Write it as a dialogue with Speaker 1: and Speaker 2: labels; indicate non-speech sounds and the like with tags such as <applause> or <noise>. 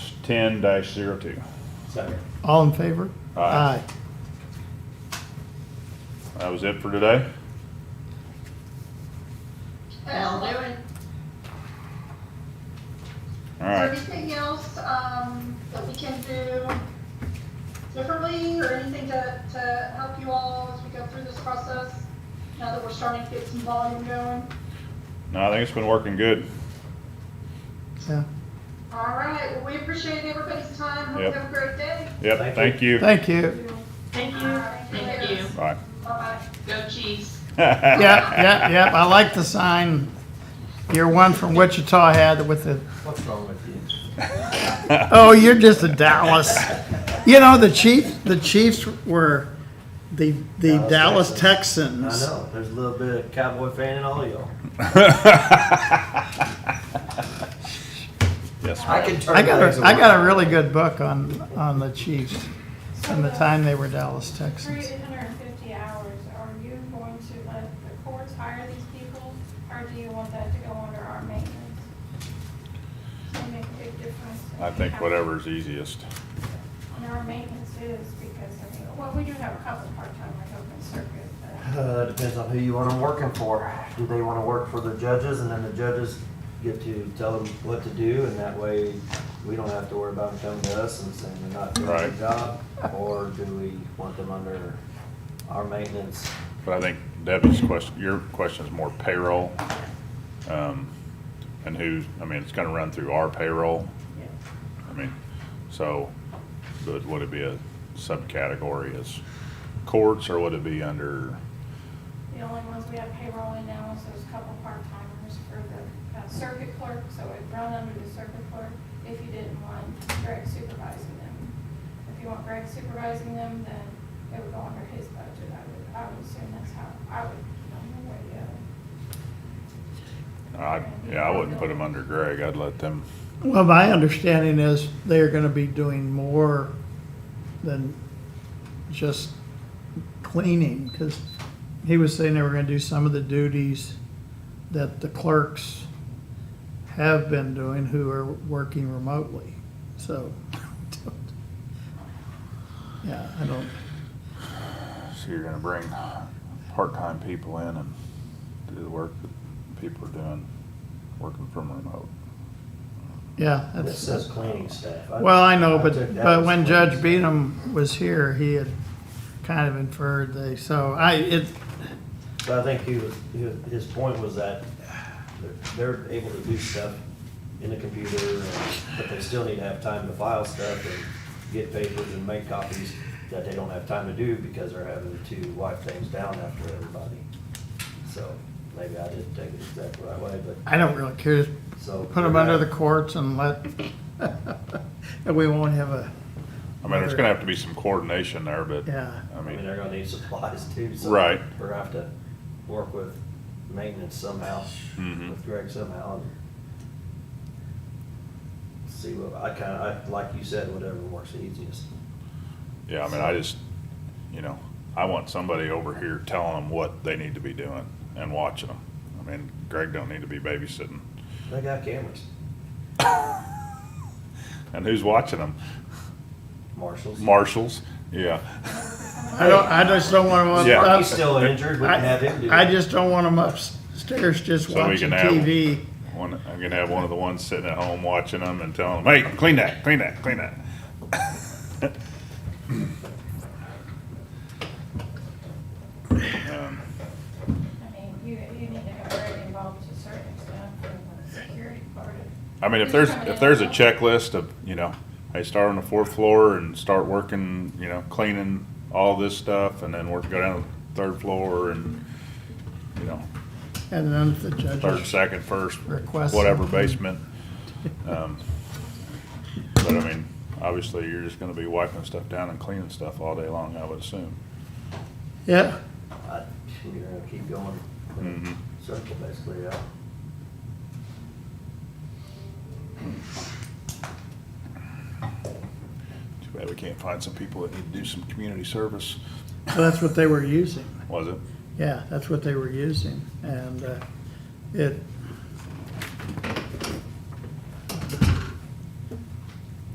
Speaker 1: ten dash zero two.
Speaker 2: Second.
Speaker 3: All in favor?
Speaker 1: Aye. That was it for today?
Speaker 4: Well, there was
Speaker 1: All
Speaker 4: is there
Speaker 1: right.
Speaker 4: anything else, um, that we can do differently or anything to, to help you all as we go through this process? Now that we're starting to get some volume going?
Speaker 1: No, I think it's been working good.
Speaker 3: Yeah.
Speaker 4: All right, well, we appreciate everybody's time. Hope you
Speaker 1: Yep.
Speaker 4: have a great day.
Speaker 1: Yep,
Speaker 2: Thank
Speaker 1: thank you.
Speaker 3: Thank you.
Speaker 5: Thank
Speaker 4: All right,
Speaker 5: Thank you.
Speaker 1: Bye. <laughs>
Speaker 4: Bye-bye.
Speaker 5: Go Chiefs.
Speaker 3: Yeah, yeah, yeah. I like the sign. Your one from Wichita had with the,
Speaker 2: What's wrong with you?
Speaker 3: oh, you're just a Dallas. You know, the Chiefs, the Chiefs were the, the
Speaker 2: Dallas
Speaker 3: Dallas Texans.
Speaker 2: I know, there's a little bit of cowboy fan in all y'all.
Speaker 1: Yes,
Speaker 2: I
Speaker 1: ma'am.
Speaker 2: can turn.
Speaker 3: I got
Speaker 2: legs
Speaker 3: a, I got a
Speaker 2: around.
Speaker 3: really good book on, on the Chiefs and the time they were Dallas Texans.
Speaker 6: 350 hours, are you going to let the courts hire these people, or do you want that to go under our maintenance? Does it make a big difference?
Speaker 1: I think whatever's easiest.
Speaker 6: And our maintenance is, because, I mean, well, we do have a couple part-timers open circuit, but
Speaker 2: Uh, depends on who you want them working for. Do they want to work for the judges and then the judges get to tell them what to do and that way we don't have to worry about them coming to us and saying they're not doing their
Speaker 1: Right.
Speaker 2: job? Or do we want them under our maintenance?
Speaker 1: But I think Debbie's question, your question's more payroll. um, And who's, I mean, it's gonna run through our payroll. I mean, so, but would it be a subcategory as courts or would it be under,
Speaker 6: the only ones we have payroll in now is those couple part-timers for the uh, circuit clerk, so it'd run under the circuit clerk if you didn't want Greg supervising them. If you want Greg supervising them, then it would go under his budget, I would, I would assume that's how, I would, I don't know where the uh,
Speaker 1: I,
Speaker 6: other.
Speaker 1: yeah, I wouldn't put them under Greg. I'd let them,
Speaker 3: Well, my understanding is they are gonna be doing more than just cleaning, because he was saying they were gonna do some of the duties that the clerks have been doing who are working remotely, so. <laughs> Yeah, I don't,
Speaker 1: so you're gonna bring part-time people in and do the work that people are doing, working from remote.
Speaker 3: yeah,
Speaker 2: This
Speaker 3: that's, uh,
Speaker 2: says cleaning staff.
Speaker 3: well, I know,
Speaker 2: took
Speaker 3: but,
Speaker 2: that
Speaker 3: but
Speaker 2: as
Speaker 3: when
Speaker 2: cleaning
Speaker 3: Judge
Speaker 2: staff.
Speaker 3: Beadham was here, he had kind of inferred they, so I, it,
Speaker 2: But I think he was, he was- his point was that they're they're able to do stuff in the computer, and- but they still need to have time to file stuff and get papers and make copies that they don't have time to do because they're having to wipe things down after everybody. So maybe I didn't take it exactly right way, but
Speaker 3: I don't really care.
Speaker 2: so.
Speaker 3: Put them under the courts and let, <laughs> and we won't have a,
Speaker 1: I mean, there's gonna have to be some coordination there, but,
Speaker 3: yeah.
Speaker 1: I
Speaker 2: I mean,
Speaker 1: mean,
Speaker 2: they're gonna need supplies too, so.
Speaker 1: Right.
Speaker 2: We're gonna have to work with maintenance somehow,
Speaker 1: Mhm.
Speaker 2: with Greg somehow, and see what, I kinda, I, like you said, whatever works easiest.
Speaker 1: yeah, I mean, I just, you know, I want somebody over here telling them what they need to be doing and watching them. I mean, Greg don't need to be babysitting.
Speaker 2: They got cameras,
Speaker 1: And who's watching them?
Speaker 2: marshals.
Speaker 1: Marshals? Yeah.
Speaker 3: I don't, I just don't want them
Speaker 1: Yeah.
Speaker 2: Marky's
Speaker 3: up.
Speaker 2: still injured, we can have him do it.
Speaker 3: I just don't want them upstairs just
Speaker 1: So we
Speaker 3: watching
Speaker 1: can have 'em.
Speaker 3: TV.
Speaker 1: One, I'm gonna have one of the ones sitting at home watching them and telling them, hey, clean that, clean that, clean that. Um,
Speaker 6: I mean, you, you need to have Greg involved to a certain extent for the security part of
Speaker 1: I mean, if there's, if there's a checklist of, you know, hey, start on the fourth floor and start working, you know, cleaning all this stuff and then work, go down to the third floor and, you know,
Speaker 3: And then if the
Speaker 1: third,
Speaker 3: judges,
Speaker 1: second, first,
Speaker 3: Request
Speaker 1: whatever
Speaker 3: something.
Speaker 1: basement. Um, But I mean, obviously, you're just gonna be wiping stuff down and cleaning stuff all day long, I would assume.
Speaker 3: <laughs> yeah,
Speaker 2: I- We're gonna
Speaker 1: Mhm.
Speaker 2: keep going, circle basically, yeah.
Speaker 1: Too bad we can't find some people that need to do some community service.
Speaker 3: so that's what they were using.
Speaker 1: Was it?
Speaker 3: Yeah, that's what they were using. And, uh, it,